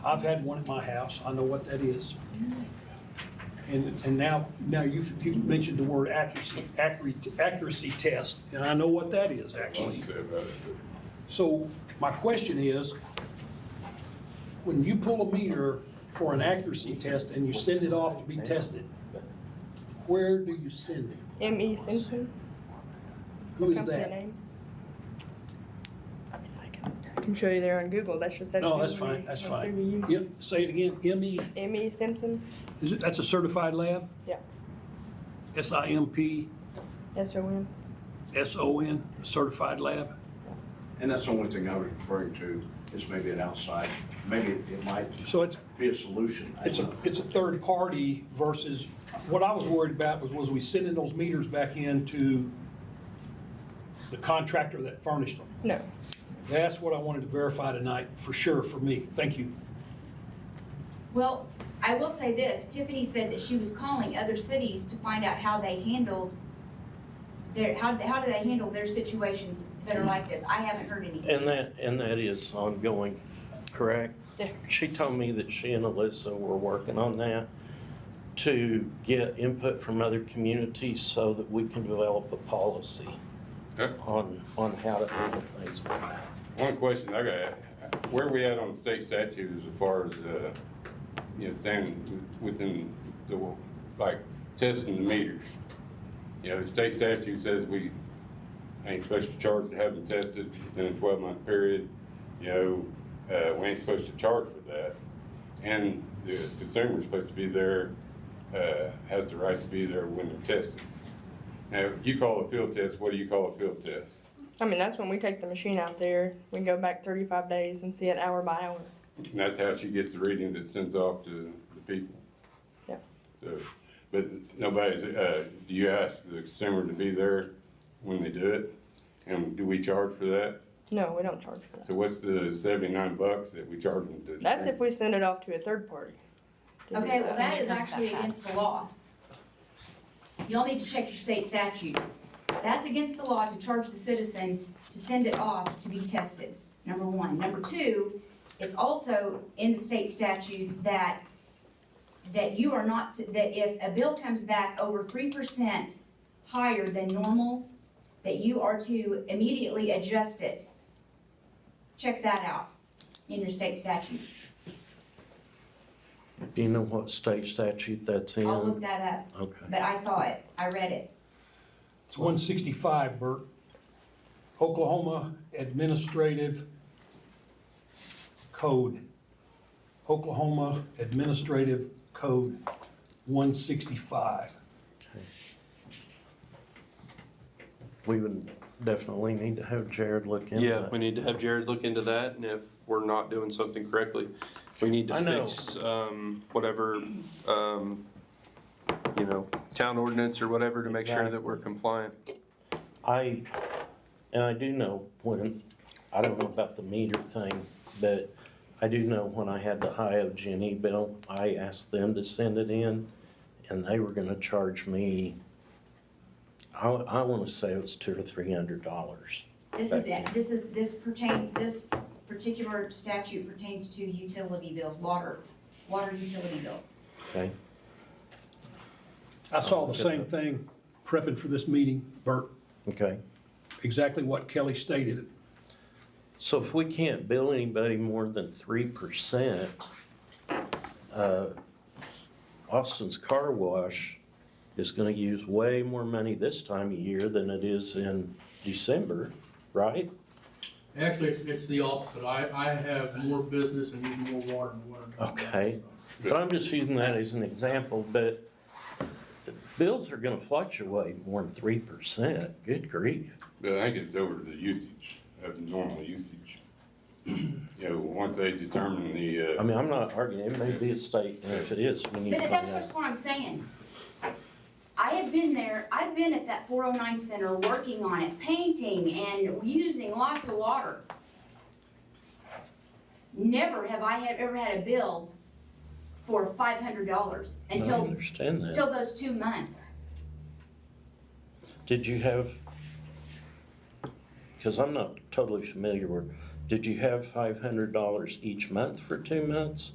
I've had one at my house, I know what that is. And, and now, now you've, you've mentioned the word accuracy, accurate, accuracy test, and I know what that is, actually. Don't say about it, but- So my question is, when you pull a meter for an accuracy test and you send it off to be tested, where do you send it? M.E. E Simpson. Who is company that? name. I mean, I can- I can show you there on Google. That's just that's. No, who that's we- fine, that's who fine. we use. Yep, say it again, ME, M.E. Simpson. is it, that's a certified lab? Yeah. S I M P S O N. S O N, certified lab? And that's the only thing I was referring to, is maybe an outside, maybe it might So it's, be a solution. I It's a, don't know. it's a third party versus, what I was worried about was, was we sending those meters back in to the contractor that furnished them. No. That's what I wanted to verify tonight, for sure, for me. Thank you. Well, I will say this, Tiffany said that she was calling other cities to find out how they handled their, how, how do they handle their situations that are like this? I haven't heard anything. And that, and that is ongoing, correct? Yeah. She told me that she and Alyssa were working on that to get input from other communities so that we can develop a policy Okay. on, on how to handle things like that. Uh, One question I got, where we at on state statutes as far as, uh, you know, standing within the, like, testing the meters? You know, the state statute says we ain't supposed to charge to have them tested within a twelve-month period. You know, uh, we ain't supposed to charge for that. And the consumer's supposed to be there, uh, has the right to be there when they're tested. Now, if you call a field test, what do you call a field test? I mean, that's when we take the machine out there. We go back 35 days and see it hour by hour. And that's how she gets the reading that sends off to the people. Yeah. So, but nobody's, uh, do you ask the consumer to be there when they do it? And do we charge for that? No, we don't charge for that. So what's the seventy-nine bucks that we charge them to? That's if we send it off to a third party. to do Okay, well, that. that is actually against the law. Y'all need to check your state statutes. That's against the law to charge the citizen to send it off to be tested, number one. Number two, it's also in the state statutes that, that you are not, to- that if a bill comes back over three percent higher than normal, that you are to immediately adjust it. Check that out in your state statutes. Do you know what state statute that's in? I'll look that up. Okay. But I saw it, I read it. It's one sixty-five, Bert. Oklahoma Administrative Code. Oklahoma Administrative Code one sixty-five. We would definitely need to have Jared look into Yeah, that. we need to have Jared look into that, and if we're not doing something correctly, we need to I know. fix, um, whatever, um, you know, town ordinance or whatever to make sure that we're compliant. I, and I do know when, I don't know about the meter thing, but I do know when I had the Ohio Jenny bill, I asked them to send it in, and they were gonna charge me, I, I wanna say it was two or three hundred dollars. This is it, this is, this pertains, this particular statute pertains to utility bills, water, water utility bills. Okay, I saw the same thing prepping for this meeting, Bert, okay. exactly what Kelly stated. So if we can't bill anybody more than three percent, uh, Austin's Car Wash is gonna use way more money this time of year than it is in December, right? Actually, it's, it's the opposite. I, I have more business and need more water in the winter. time. Okay. But I'm just using that as an example, but bills are gonna fluctuate more than three percent, good grief. But I think it's over the usage, of the normal usage. You know, once they determine the, I uh, mean, I'm not arguing, it may be a state, and if it is, we need to But find that's out. just what I'm saying. I have been there, I've been at that four oh nine center working on it, painting and using lots of water. Never have I had, ever had a bill for five hundred dollars I until, understand that. until those two months. Did you have, because I'm not totally familiar with, did you have five hundred dollars each month for two months?